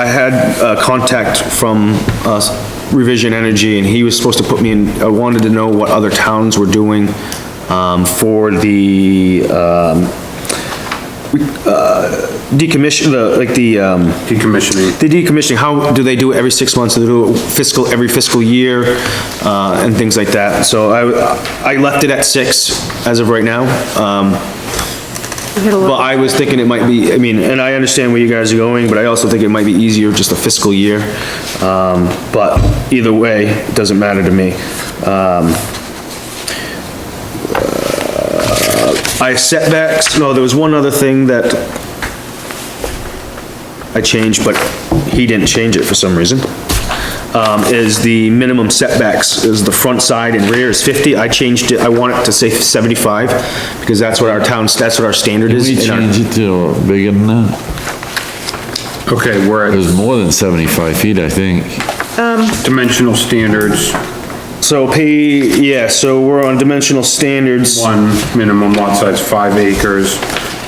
I had a contact from uh, Revision Energy, and he was supposed to put me in, I wanted to know what other towns were doing um, for the um, uh, decommission, the- like the, um, decommissioning. the decommissioning, how, do they do it every six months, do they do it fiscal, every fiscal year, uh, and things like that, so I, I left it at six as of right now, um, but I was thinking it might be, I mean, and I understand where you guys are going, but I also think it might be easier just a fiscal year, um, but either way, it doesn't matter to me. Um, I setbacks, no, there was one other thing that I changed, but he didn't change it for some reason, um, is the minimum setbacks, is the front side and rear is 50. I changed it, I want it to say 75, because that's what our town, that's what our standard is. We in our- change it to bigger than that? Okay, It we're at was more than 75 feet, I think. dimensional standards, So pay, yeah, so we're on dimensional standards. one, minimum lot size five acres,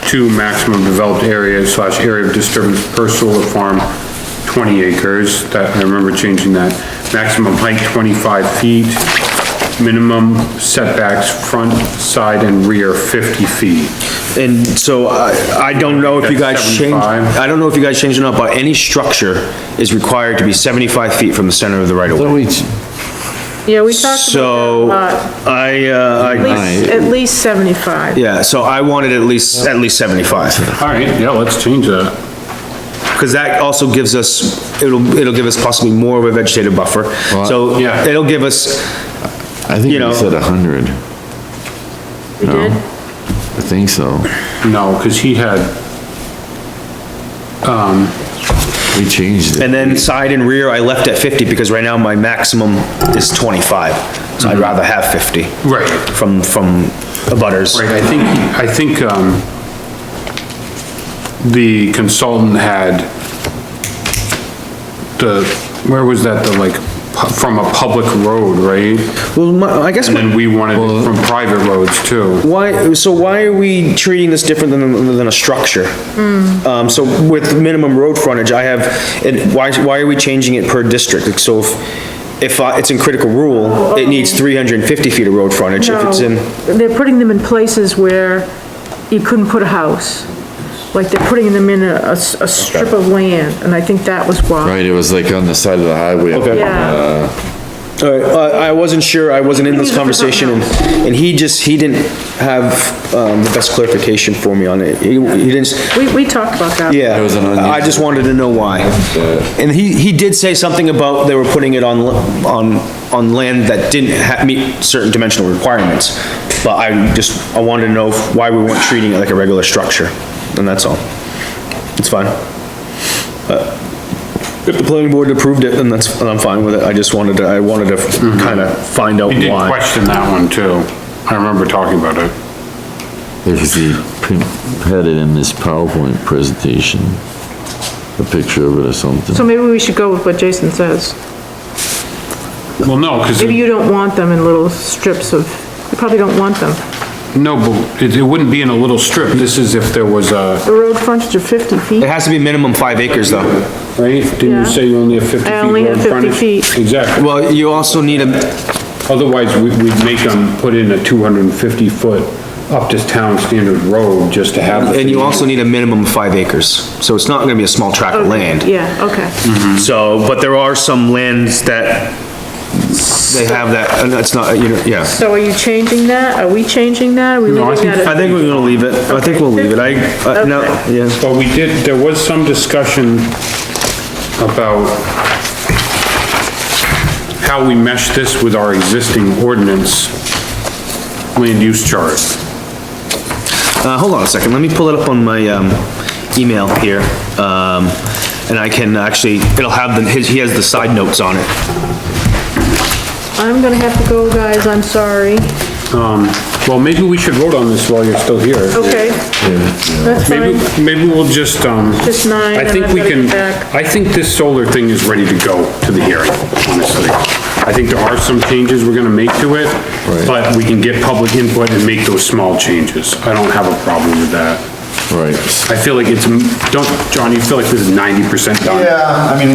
two, maximum developed area slash area of disturbance per solar farm, twenty acres, that, I remember changing that. Maximum height twenty-five feet, minimum setbacks, front, side, and rear fifty feet. And so I, I don't know if you guys That's changed, 75. I don't know if you guys changed it up, but any structure is required to be 75 feet from the center of the right of way. So we, ch- Yeah, we talked So about I, uh, that a I, lot. At least, at least 75. yeah, so I wanted at least, at least 75. All right, yeah, let's change that. Because that also gives us, it'll, it'll give us possibly more of a vegetative buffer. So yeah. it'll give us, I think You know. we said 100. We did? I think so. No, because he had, We changed it. and then side and rear, I left at 50 because right now my maximum is 25. So I'd rather have 50. Mm-hmm. Right. From, from abutters. Right, I think, I think, um, the consultant had the, where was that, the like, pu- from a public road, right? Well, my- I guess, And my- then we wanted it from private roads too. why, so why are we treating this different than, than a structure? Um, so with minimum road frontage, I have, and why, why are we changing it per district? Like, So if, if I- it's in critical rule, it needs 350 feet of road frontage. If it's in. No, They're putting them in places where you couldn't put a house. Like they're putting them in a, a s- a strip of land, and I think that was why. Right, it was like on the side of the highway. Okay. Yeah, All right, I, I wasn't sure, I wasn't in this conversation, and, and he just, he didn't have, um, the best clarification for me on it. He, he didn't, s- we, we talked about that. yeah, It was an unusual- I just wanted to know why. And he, he did say something about they were putting it on, l- on, on land that didn't ha, meet certain dimensional requirements. But I just, I wanted to know why we weren't treating it like a regular structure, and that's all. It's fine. Uh, If the planning board approved it, then that's, then I'm fine with it, I just wanted to, I wanted to kinda find out We did why. question that one too. I remember talking about it. There's the, print- had it in this PowerPoint presentation, a picture of it or something. So maybe we should go with what Jason says. Well, no, because, Maybe you don't want them in little strips of, you probably don't want them. no, but it, it wouldn't be in a little strip. This is if there was a, The road frontage of 50 feet. It has to be minimum five acres, though. right? Didn't Yeah. you say you only have 50 feet I only have road 50 frontage? feet. Exactly. Well, you also need a, Otherwise, we- we'd make them put in a 250-foot up to town standard road just to have. and you also need a minimum of five acres, so it's not gonna be a small tract of land. Yeah, okay. So, but there are some lands that they have that, and it's not, you know, yeah. So are you changing that? Are we changing that? Are we No, I leaving think- I that at- think we're gonna leave it, I think we'll leave it, I, uh, no, yeah. But we did, there was some discussion about how we mesh this with our existing ordinance land use chart. Uh, hold on a second, let me pull it up on my, um, email here, um, and I can actually, it'll have the, his, he has the side notes on it. I'm gonna have to go, guys, I'm sorry. Um, Well, maybe we should vote on this while you're still here. Okay. That's Maybe, fine, maybe we'll just, um, just nine, I and think I've we gotta can, get back. I think this solar thing is ready to go to the hearing, honestly. I think there are some changes we're gonna make to it, but we can get public input and make those small changes. I don't have a problem with that. Right. I feel like it's, don't, John, you feel like this is ninety percent done? Yeah, I mean,